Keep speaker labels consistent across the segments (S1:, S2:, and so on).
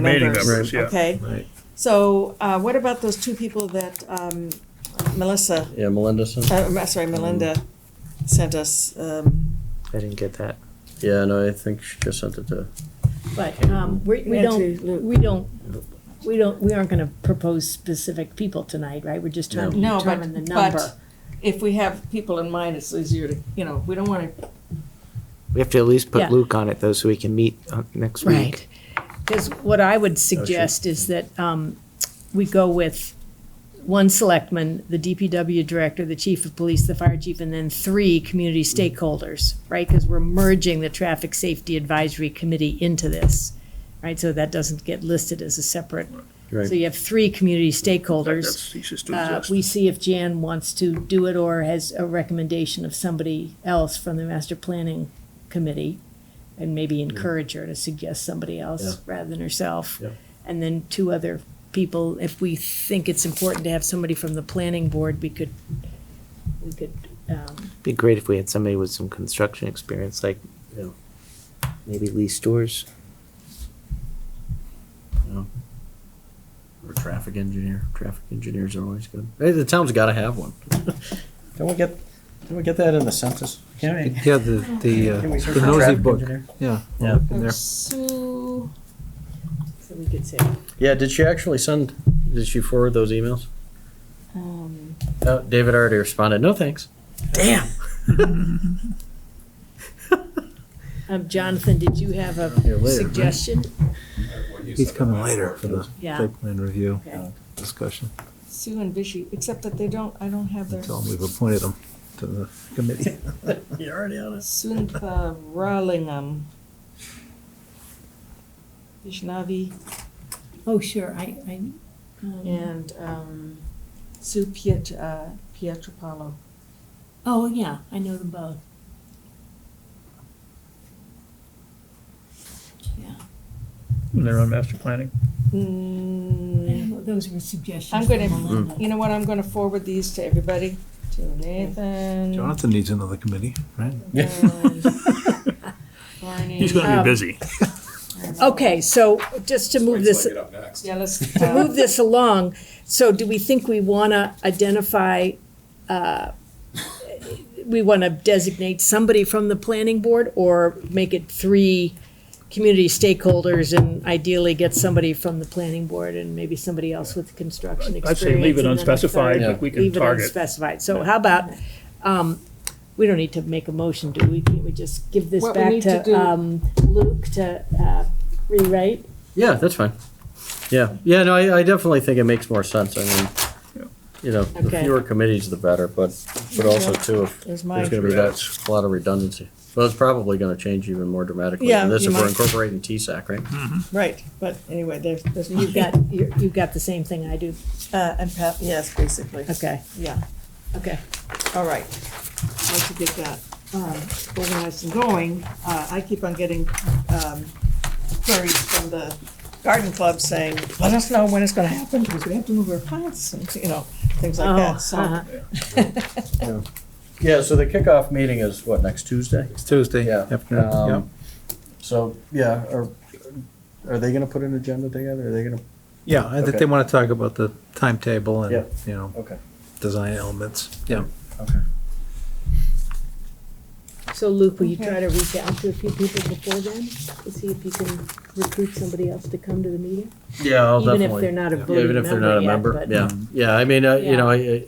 S1: Remaining
S2: members,
S1: members, yeah.
S2: Okay,
S3: Right,
S2: so, uh, what about those two people that, um, Melissa,
S3: yeah, Melindason?
S2: uh, I'm sorry, Melinda sent us, um,
S4: I didn't get that.
S3: Yeah, no, I think she just sent it to,
S5: But um, we we don't, we don't, we don't, we aren't going to propose specific people tonight, right? We're just trying to
S2: No. No, but-
S5: determine the
S2: but-
S5: number.
S2: if we have people in mind, it's easier to, you know, we don't wanna,
S4: We have to at least
S5: Yeah.
S4: put Luke on it though, so we can meet uh, next week.
S5: Because what I would suggest is that um, we go with one selectman, the DPW director, the chief of police, the fire chief, and then three community stakeholders, right? Because we're merging the Traffic Safety Advisory Committee into this, right? So that doesn't get listed as a separate. So
S3: right,
S5: you have three community stakeholders.
S1: That's ceases to
S5: Uh,
S1: exist.
S5: we see if Jan wants to do it or has a recommendation of somebody else from the master planning committee, and maybe encourage her to suggest somebody
S3: Yeah.
S5: else rather than herself.
S3: Yeah.
S5: And then two other people, if we think it's important to have somebody from the planning board, we could, we could, um,
S4: Be great if we had somebody with some construction experience, like
S3: yeah.
S4: maybe Lee Stores.
S3: Or traffic engineer, traffic engineers are always good. Hey, the town's gotta have one.
S6: Can we get, can we get that in the census? Can we?
S7: Yeah, the, the, uh,
S6: Can we search
S7: the
S6: for
S7: nosy
S6: traffic
S7: book,
S6: engineer?
S7: yeah.
S3: Yeah.
S7: in there.
S2: Sue,
S5: so we could say,
S3: Yeah, did she actually send, did she forward those emails?
S2: um,
S3: Uh, David already responded, no thanks. Damn.
S5: um, Jonathan, did you have
S7: Yeah, later,
S5: a
S7: right?
S5: suggestion?
S7: He's coming later for the
S5: Yeah.
S7: site plan review
S5: Okay.
S7: discussion.
S2: Sue and Vishy, except that they don't, I don't have their,
S7: Tell him we've appointed him to the committee.
S3: You're already on it.
S2: Suntha Rollingham. Vishnavi
S5: Oh, sure, I, I, um,
S2: and, um, Sue Piet, uh, Pietropalo.
S5: oh, yeah, I know them both. Yeah.
S1: They're on master planning.
S2: Mm,
S5: I don't know, Those were suggestions.
S2: I'm gonna-
S5: from Melinda.
S2: You know what, I'm gonna forward these to everybody, to Nathan.
S7: Jonathan needs another committee, right?
S2: and Barney.
S1: He's gonna be busy.
S5: Okay, so just to move this,
S2: Yeah, let's,
S5: to
S2: uh,
S5: move this along, so do we think we want to identify, uh, we want to designate somebody from the planning board or make it three community stakeholders and ideally get somebody from the planning board and maybe somebody else with construction
S1: I'd
S5: experience?
S1: say leave it
S5: and then a
S1: unspecified,
S5: third?
S1: but we can
S5: Leave it
S1: target.
S5: unspecified. So how about, um, we don't need to make a motion, do we? Can we just give this
S2: What we
S5: back
S2: need to
S5: to,
S2: do-
S5: um, Luke to, uh, rewrite?
S3: Yeah, that's fine. Yeah, yeah, no, I, I definitely think it makes more sense. I mean, you know, the
S5: Okay.
S3: fewer committees, the better, but, but also too, if
S2: there's
S3: There's
S2: my,
S3: gonna be that, a lot of redundancy. Well, it's probably gonna change even more dramatically
S2: Yeah,
S3: than this
S2: you
S3: if we're
S2: might.
S3: incorporating TSAC, right?
S2: right, but anyway, there's, there's.
S5: You've got, you're- you've got the same thing I do.
S2: Uh, and Pat, yes, basically,
S5: Okay,
S2: yeah,
S5: okay.
S2: all right. Once you get that, um, organized and going, uh, I keep on getting, um, queries from the garden club saying, let us know when it's gonna happen, because we have to move our plants, and, you know, things like
S5: Oh,
S2: that, so.
S5: uh-huh.
S3: Yeah, so the kickoff meeting is what, next Tuesday?
S7: It's Tuesday
S3: Yeah.
S7: afternoon, yeah.
S3: Um, So, yeah, are, are they gonna put an agenda together? Are they gonna?
S7: Yeah, I think
S3: okay.
S7: they want to talk about the timetable
S3: Yeah.
S7: and, you know,
S3: Okay,
S7: design elements, yeah.
S3: okay.
S5: So Luke, will you try to reach out to a few people before then to see if you can recruit somebody else to come to the meeting?
S3: Yeah, I'll Oh, definitely.
S5: Even if they're not a
S3: Yeah, even
S5: voting
S3: if they're not
S5: member
S3: a
S5: yet,
S3: member,
S5: but.
S3: yeah, yeah, I mean, uh, you
S5: Yeah.
S3: know, I, I-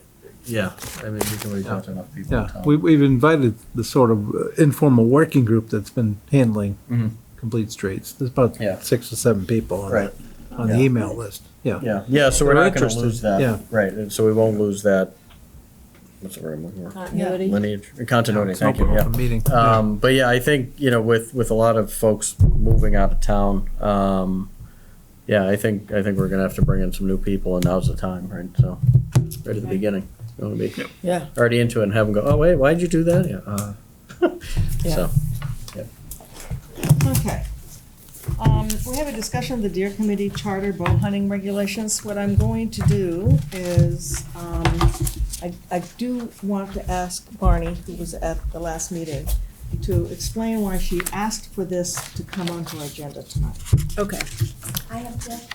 S3: yeah, I mean, we can reach out to enough people in
S7: Yeah,
S3: town.
S7: we, we've invited the sort of uh, informal working group that's been handling
S3: Mhm.
S7: complete streets. There's about
S3: Yeah.
S7: six or seven people on
S3: Right.
S7: that, on the
S3: Yeah.
S7: email list, yeah.
S3: Yeah, yeah, so we're
S7: They're
S3: not gonna
S7: interested,
S3: lose that.
S7: yeah.
S3: Right, and so we won't lose that, what's the word I'm looking for?
S5: Continuity?
S3: Lineage, continuity,
S7: It's
S3: thank you,
S7: open-
S3: yeah.
S7: open Meeting.
S3: Um, but yeah, I think, you know, with, with a lot of folks moving out of town, um, yeah, I think, I think we're gonna have to bring in some new people and now's the time, right? So, right at the
S5: Okay.
S3: beginning, you wanna be
S2: Yeah.
S3: already into it and have them go, oh, wait, why'd you do that? Yeah, uh,
S2: Yeah.
S3: so,
S2: Okay. Um, we have a discussion of the Deer Committee Charter Bow Hunting Regulations. What I'm going to do is, um, I, I do want to ask Barney, who was at the last meeting, to explain why she asked for this to come onto our agenda tonight.
S5: Okay.
S8: I object